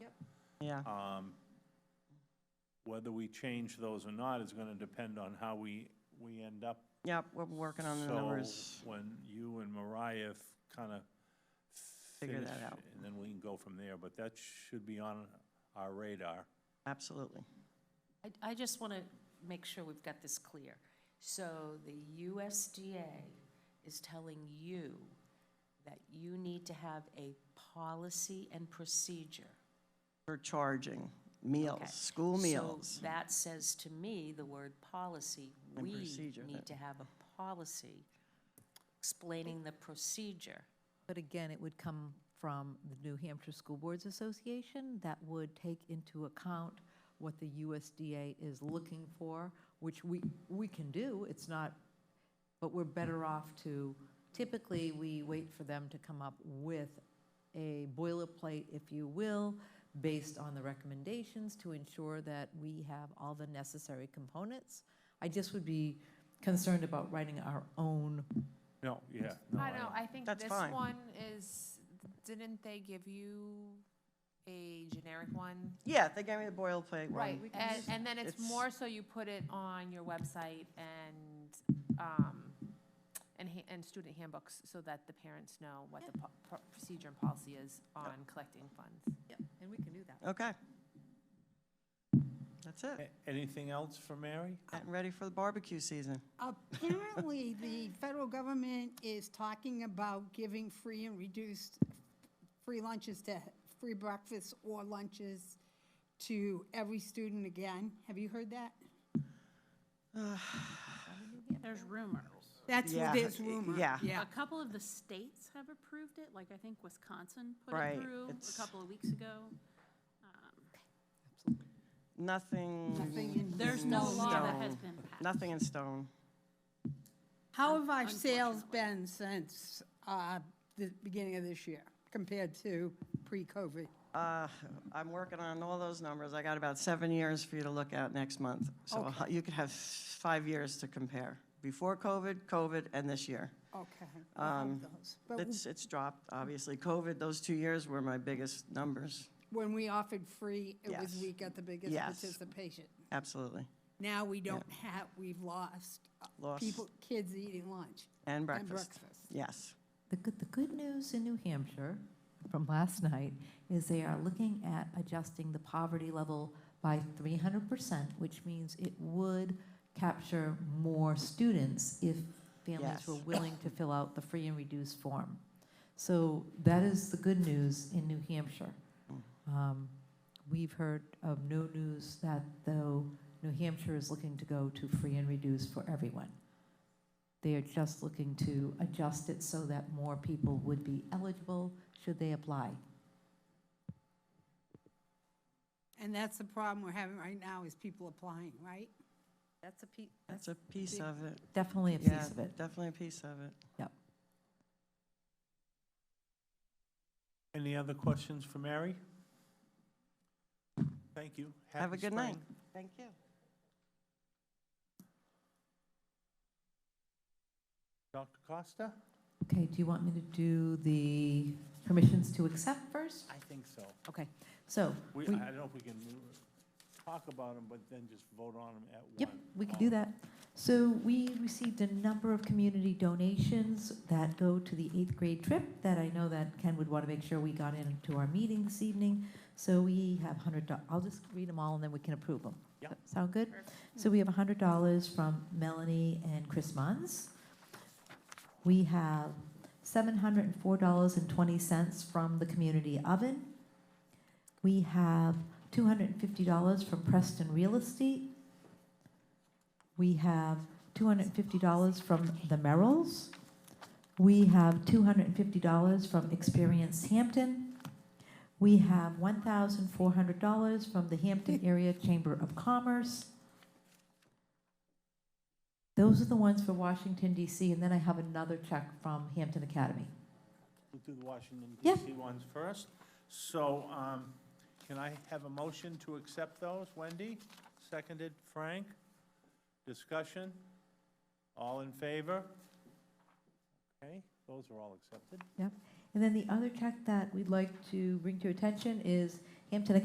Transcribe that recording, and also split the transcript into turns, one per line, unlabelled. Yeah.
Um, Whether we change those or not is gonna depend on how we, we end up.
Yep, we're working on the numbers.
So when you and Mariah kind of.
Figure that out.
And then we can go from there, but that should be on our radar.
Absolutely.
I, I just want to make sure we've got this clear. So the USDA is telling you that you need to have a policy and procedure.
For charging, meals,
Okay.
school
So
meals.
that says to me, the word policy,
And
we
procedure,
need
that-
to have a policy explaining the procedure.
But again, it would come from the New Hampshire School Boards Association that would take into account what the USDA is looking for, which we, we can do, it's not, but we're better off to, typically, we wait for them to come up with a boilerplate, if you will, based on the recommendations to ensure that we have all the necessary components. I just would be concerned about writing our own
No, yeah. no,
I know, I think
That's
this
fine.
one is, didn't they give you a generic one?
Yeah, they gave me the boilerplate one.
Right, and, and then it's
it's-
more so you put it on your website and, um, and, ha- and student handbooks so that the parents know what the po- pro- procedure and policy is on collecting funds.
And we can do that.
Okay. That's it.
A- Anything else for Mary?
Getting ready for the barbecue season.
Apparently, the federal government is talking about giving free and reduced, free lunches to, free breakfasts or lunches to every student again. Have you heard that?
There's rumors.
That's,
Yeah,
there's
y-
rumor.
yeah.
A couple of the states have approved it, like I think Wisconsin put
Right,
it through
it's-
a couple of weeks ago.
Nothing,
Nothing in-
There's no law that has
No.
been passed.
nothing in stone.
How have our sales
Unfortunately.
been since, uh, the beginning of this year compared to pre-COVID?
Uh, I'm working on all those numbers. I got about seven years for you to look at next month. So h- you could have five years to compare, before COVID, COVID, and this year.
Okay. we have
Um,
those. But
It's, it's dropped, obviously. COVID, those two years were my biggest numbers,
when we offered free, it was,
Yes.
we got the biggest
Yes.
participation.
absolutely.
Now we don't have, we've lost uh,
Lost.
people, kids eating lunch.
And breakfast.
breakfast.
Yes.
The good, the good news in New Hampshire from last night is they are looking at adjusting the poverty level by 300%, which means it would capture more students if families were
Yes.
willing to fill out the free and reduced form. So that is the good news in New Hampshire. Um, We've heard of no news that though New Hampshire is looking to go to free and reduced for everyone. They are just looking to adjust it so that more people would be eligible should they apply.
And that's the problem we're having right now is people applying, right?
That's a
That's a piece of it.
Definitely a
Yeah,
piece of it.
Definitely a piece of it.
Any other questions for Mary? Thank you.
Have a
Happy
good night.
spring.
Thank you.
Dr. Costa?
Okay, do you want me to do the permissions to accept first?
I think so.
Okay, so,
We,
We-
I don't know if we can move- talk about them, but then just vote on them at one.
yep, we can do that. So we received a number of community donations that go to the eighth grade trip that I know that Ken would want to make sure we got into our meeting this evening. So we have hundred, do- I'll just read them all and then we can approve them.
Yeah.
That Sound good? So we have hundred dollars from Melanie and Chris Mons. We have seven hundred and four dollars and twenty cents from the community oven. We have two hundred and fifty dollars from Preston Real Estate. We have two hundred and fifty dollars from the Merrills. We have two hundred and fifty dollars from Experience Hampton. We have one thousand four hundred dollars from the Hampton Area Chamber of Commerce. Those are the ones for Washington DC, and then I have another check from Hampton Academy.
We'll do the Washington
Yeah.
DC ones first. So, um, can I have a motion to accept those? Wendy, seconded Frank. Discussion? All in favor? Okay, those are all accepted.
And then the other check that we'd like to bring to your attention is Hampton